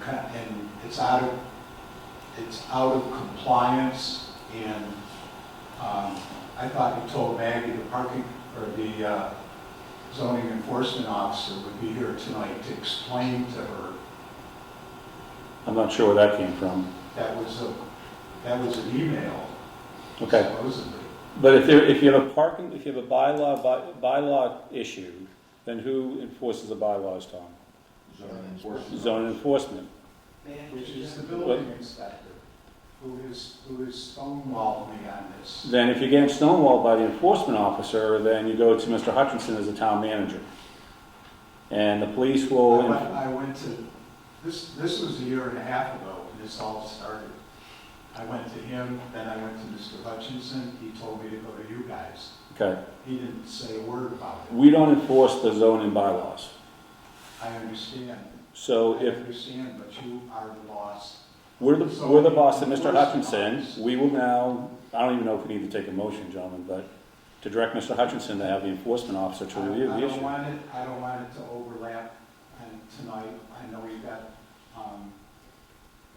co- and it's out of, it's out of compliance, and um, I thought you told Maggie the parking, or the uh, zoning enforcement officer would be here tonight to explain to her I'm not sure where that came from. that was a, that was an email Okay, supposedly. but if there, if you have a parking, if you have a bylaw, by- bylaw issue, then who enforces the bylaws, Tom? zoning enforcement. Zoning enforcement. Which is the building inspector, who is, who is stonewalled me on this. Then if you're getting stonewalled by the enforcement officer, then you go to Mr. Hutchinson as the town manager. And the police I will, went, I went to, this, this was a year and a half ago when this all started. I went to him, then I went to Mr. Hutchinson, he told me to go to you guys. okay, He didn't say a word about it. we don't enforce the zoning bylaws. I understand, I So if understand, but you are the boss. we're the, we're the boss of Mr. Hutchinson, we will now, I don't even know if we need to take a motion, gentlemen, but to direct Mr. Hutchinson to have the enforcement officer to I- review the I don't issue. want it, I don't want it to overlap, and tonight, I know we've got, um,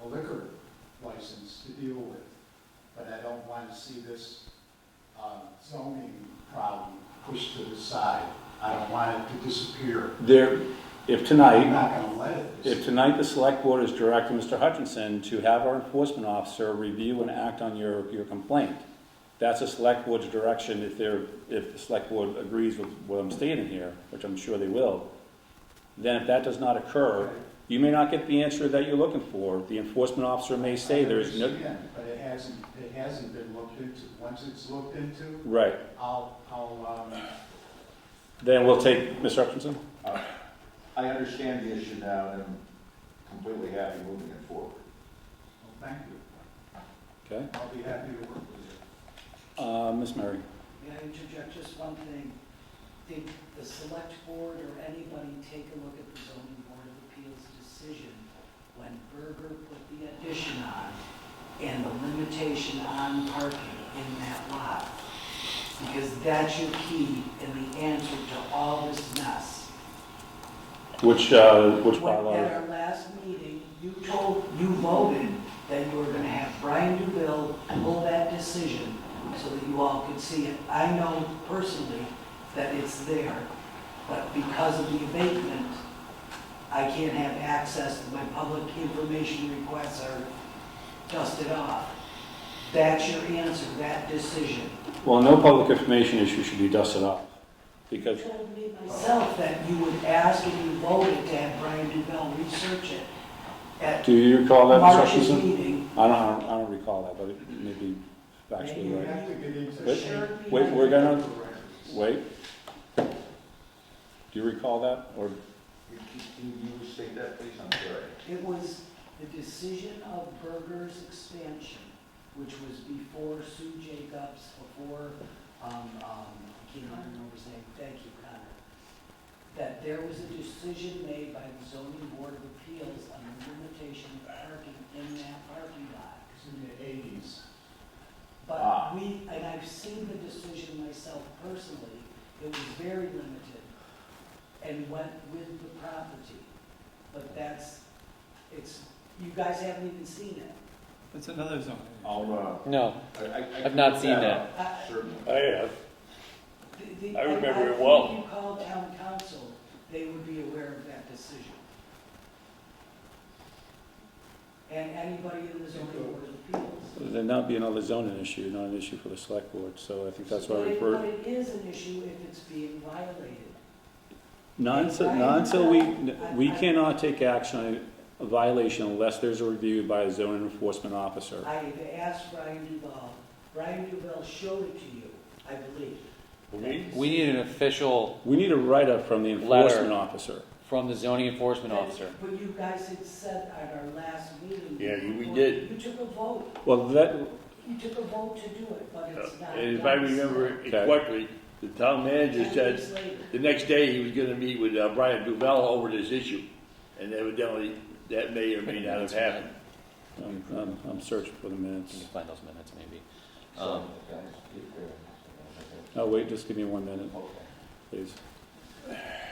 a liquor license to deal with, but I don't want to see this, uh, zoning problem pushed to the side. I don't want it to disappear. There, if I'm tonight, not gonna let it. if disappear. tonight the select board is directing Mr. Hutchinson to have our enforcement officer review and act on your, your complaint, that's a select board's direction if they're, if the select board agrees with what I'm stating here, which I'm sure they will. Then if that does not occur, you may not get the answer that you're looking for. The enforcement officer may say there is I no, understand, But it hasn't, it hasn't been looked into. Once it's looked into, right. I'll, I'll, um, Then we'll take, Mr. Hutchinson? I understand the issue now, and I'm completely happy moving it forward. well, thank you. Okay. I'll be happy to work with you. Uh, Ms. Murray? May I interject just one thing? Did the select board or anybody take a look at the zoning board of appeals decision when Berger put the addition on and the limitation on parking in that lot? Because that's your key and the answer to all this mess. Which, uh, which When- At bylaw? our last meeting, you told, you voted that you were gonna have Brian DuVille pull that decision so that you all could see it. I know personally that it's there, but because of the abatement, I can't have access to my public information requests are dusted off. That's your answer, that decision. Well, no public information issue should be dusted off, You because, told me myself that you would ask and you voted to have Brian DuVille research it at do you recall that, Mr. March's Hutchinson? meeting. I don't, I don't- I don't recall that, but it may be You factually right. have to get into. Wait, Shared wait, meeting. we're gonna- Wait. Do you recall that, or, You- Can can you state that, please? I'm sorry. It was the decision of Berger's expansion, which was before Sue Jacobs, before, um, um, I can't remember his name, thank you, Connor. That there was a decision made by the zoning board of appeals on the limitation of parking in that parking lot. It's in the eighties. Ah. But we, and I've seen the decision myself personally, it was very limited and went with the property. But that's, it's, you guys haven't even seen it. That's another zone. I'll, No, uh, I- I- I I've can not look seen up, I- Certainly. I have. the- the- I remember it think well. If you call town council, they would be aware of that decision. And anybody in the zoning board of appeals. then that'd be another zoning issue, not an issue for the select board, so I think that's why I But it- But referred. it is an issue if it's being violated. Not until, not until we, we cannot take action on a violation unless there's a review by a zoning enforcement officer. I have asked Brian Duval, Brian Duval showed it to you, I believe. we need an official We need a write-up from the enforcement officer. from the zoning enforcement That- officer. But you guys had said at our last meeting. Yeah, you- we you- did. You took a vote, Well, that, you took a vote to do it, but it's not. And Uh, if I done. remember it Okay. correctly, the town manager Ten said years later. the next day he was gonna meet with uh, Brian Duval over this issue. And evidently, that may or may not have happened. I'm, I'm, I'm searching for the You minutes. can find those minutes maybe. So, Um, guys, keep going. Oh, wait, just give me one minute, Okay. please.